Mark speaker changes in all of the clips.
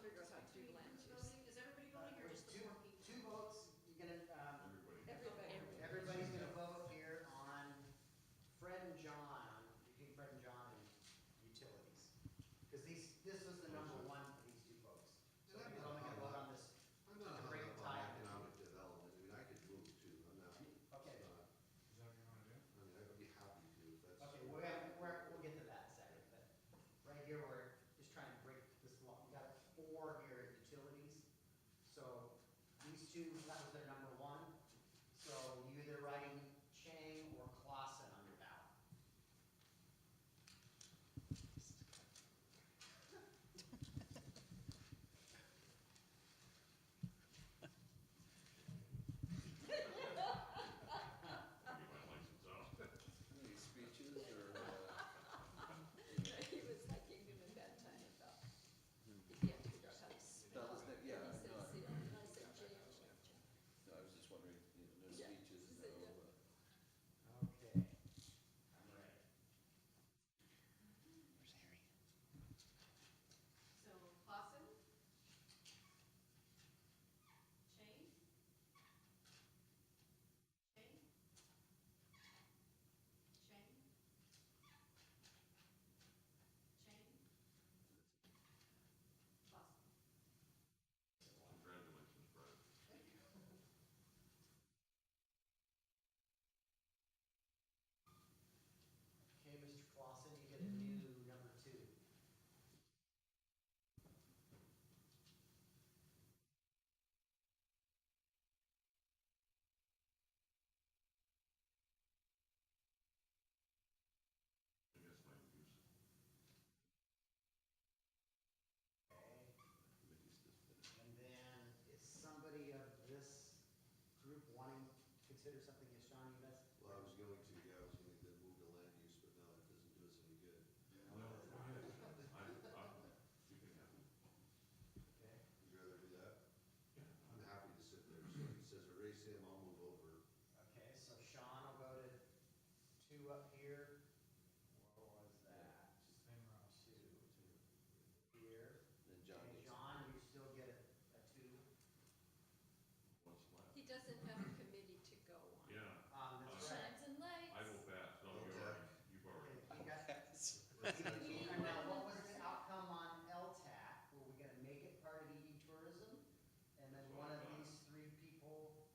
Speaker 1: three land use.
Speaker 2: Is everybody going here, or
Speaker 3: There's
Speaker 2: just the four people?
Speaker 3: two, two votes, you're gonna, um,
Speaker 1: Everybody.
Speaker 3: everybody's gonna vote here on Fred and John, between Fred and John and utilities. Because these, this was the number one for these two folks. So we're only gonna vote on this.
Speaker 4: I'm
Speaker 3: to
Speaker 4: not hung
Speaker 3: break
Speaker 4: up
Speaker 3: the
Speaker 4: on
Speaker 3: tie.
Speaker 4: economic development, I mean, I could move to, I'm not,
Speaker 3: Okay,
Speaker 4: it's not-
Speaker 5: Is that what you wanna do?
Speaker 4: I mean, I would be happy to, if that's.
Speaker 3: okay, we're, gonna- we're, we'll get to that in a second, but right here, we're just trying to break this law. We got four here at utilities. So these two, that was their number one. So you either writing Chang or Clausen on your ballot.
Speaker 6: Any speeches or, uh,
Speaker 1: He was like, he knew at that time about,
Speaker 3: Hmm.
Speaker 1: he can't figure out how to
Speaker 6: that
Speaker 1: spell.
Speaker 6: was, the- yeah,
Speaker 1: He said
Speaker 6: no,
Speaker 1: "Seal," and I said "Jam."
Speaker 6: no, I was just wondering, you know, no
Speaker 1: Yeah.
Speaker 6: speeches, no, uh,
Speaker 3: Okay. I'm ready.
Speaker 2: So Clausen? Chang? Chang? Chang? Chang? Clausen?
Speaker 7: Congratulations, Brad.
Speaker 3: Okay, Mr. Clausen, you get a new number two. Okay.
Speaker 4: Committee's
Speaker 7: I guess my views.
Speaker 4: just been-
Speaker 3: And then is somebody of this group wanting to consider something as Sean, you best?
Speaker 4: Well, I was going to, yeah, I was going to move to land use, but no, that doesn't do us any good.
Speaker 7: No, I, I, you can have it.
Speaker 3: Okay.
Speaker 4: Would you rather do that?
Speaker 7: Yeah.
Speaker 4: I'm happy to sit there, so if he says erase him, I'll move over.
Speaker 3: Okay, so Sean will go to two up here. What was that?
Speaker 5: Then Ross.
Speaker 3: Two. Here.
Speaker 6: then John
Speaker 3: And
Speaker 6: gets.
Speaker 3: John, you still get a, a two.
Speaker 7: What's left?
Speaker 1: He doesn't have a committee to go on.
Speaker 7: Yeah,
Speaker 3: Um, that's right.
Speaker 1: Shines and lights.
Speaker 7: I will pass. No, you
Speaker 4: Okay.
Speaker 7: already, you've
Speaker 3: Okay,
Speaker 7: already.
Speaker 3: you got- And
Speaker 4: That's all.
Speaker 3: now, what was the outcome on LTAC? Were we gonna make it part of EE tourism? And then one of these three people,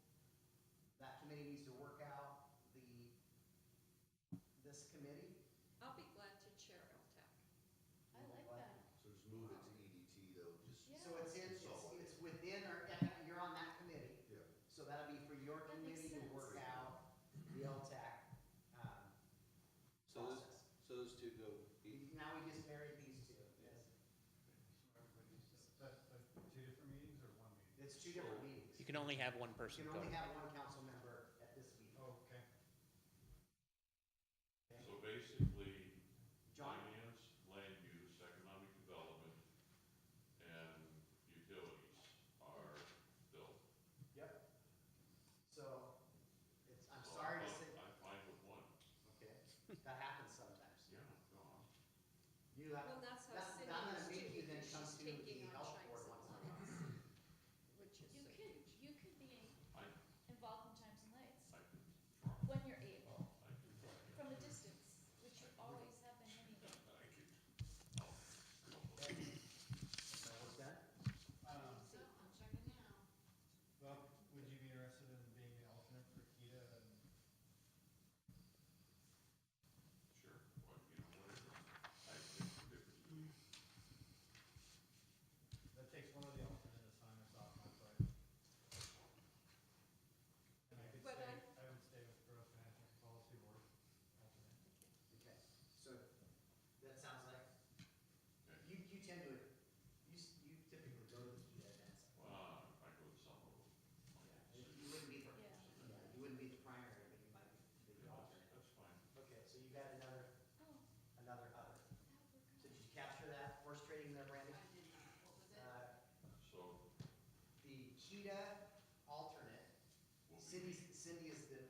Speaker 3: that committee needs to work out the, this committee?
Speaker 1: I'll be glad to chair LTAC. I like that.
Speaker 4: So just move it to EDT though, just,
Speaker 1: Yeah.
Speaker 4: yeah.
Speaker 3: So it's in, it's, it's within our, econ- you're on that committee, so that'll be for your
Speaker 1: That makes
Speaker 3: committee to work
Speaker 1: sense.
Speaker 3: out the LTAC, um,
Speaker 6: So those,
Speaker 3: process.
Speaker 6: so those two go, each?
Speaker 3: Now we just married these two, yes.
Speaker 5: So everybody's, that's, that's two different meetings or one meeting?
Speaker 3: It's two different meetings.
Speaker 8: You can only have one
Speaker 3: You
Speaker 8: person
Speaker 3: can
Speaker 8: go.
Speaker 3: only have one council member at this
Speaker 7: Oh.
Speaker 3: meeting.
Speaker 5: Oh, Okay.
Speaker 7: So basically,
Speaker 3: John?
Speaker 7: finance, land use, economic development, and utilities are built.
Speaker 3: Yep. So, it's, I'm sorry to say,
Speaker 7: I'm fine with one.
Speaker 3: okay, that happens sometimes.
Speaker 7: Yeah, no,
Speaker 3: You have,
Speaker 1: Well, that's how
Speaker 3: that's, I'm gonna
Speaker 1: Cindy
Speaker 3: make you
Speaker 1: is too,
Speaker 3: then
Speaker 1: because
Speaker 3: come
Speaker 1: she's
Speaker 3: to the
Speaker 1: taking on
Speaker 3: health
Speaker 1: Shines and
Speaker 3: board once in a while.
Speaker 1: Lights, which is
Speaker 9: You could,
Speaker 1: so huge.
Speaker 9: you could be
Speaker 7: I,
Speaker 9: involved in Times and Lights
Speaker 7: I can try,
Speaker 9: when you're able,
Speaker 7: I can try.
Speaker 9: from a distance, which you always have been anyway.
Speaker 7: I can. Oh, I'll come up with-
Speaker 3: So we're done?
Speaker 5: Um,
Speaker 2: So I'm checking now.
Speaker 5: well, would you be interested in being the alternate for Kita and
Speaker 7: Sure, well, you know, whatever. I think the difference is-
Speaker 5: That takes one of the alternate assignments off my plate. And I could
Speaker 1: But
Speaker 5: stay,
Speaker 1: I-
Speaker 5: I would stay with growth management policy board alternate.
Speaker 3: Okay, so, that sounds like,
Speaker 7: Okay.
Speaker 3: you, you tend to, you, s- you typically go to the PETA events.
Speaker 7: Well, I go to some of them.
Speaker 3: You wouldn't be the,
Speaker 9: Yeah.
Speaker 3: yeah, you wouldn't be the primary, but you might be the
Speaker 7: Yeah,
Speaker 3: alternate.
Speaker 7: That's fine.
Speaker 3: Okay, so you got another,
Speaker 9: Oh,
Speaker 3: another other.
Speaker 9: that would work.
Speaker 3: So did you capture that, horse trading there,
Speaker 2: I did
Speaker 3: Brandon?
Speaker 2: not, what was it?
Speaker 3: Uh,
Speaker 7: So
Speaker 3: the Kita alternate
Speaker 7: we'll be.
Speaker 3: Cities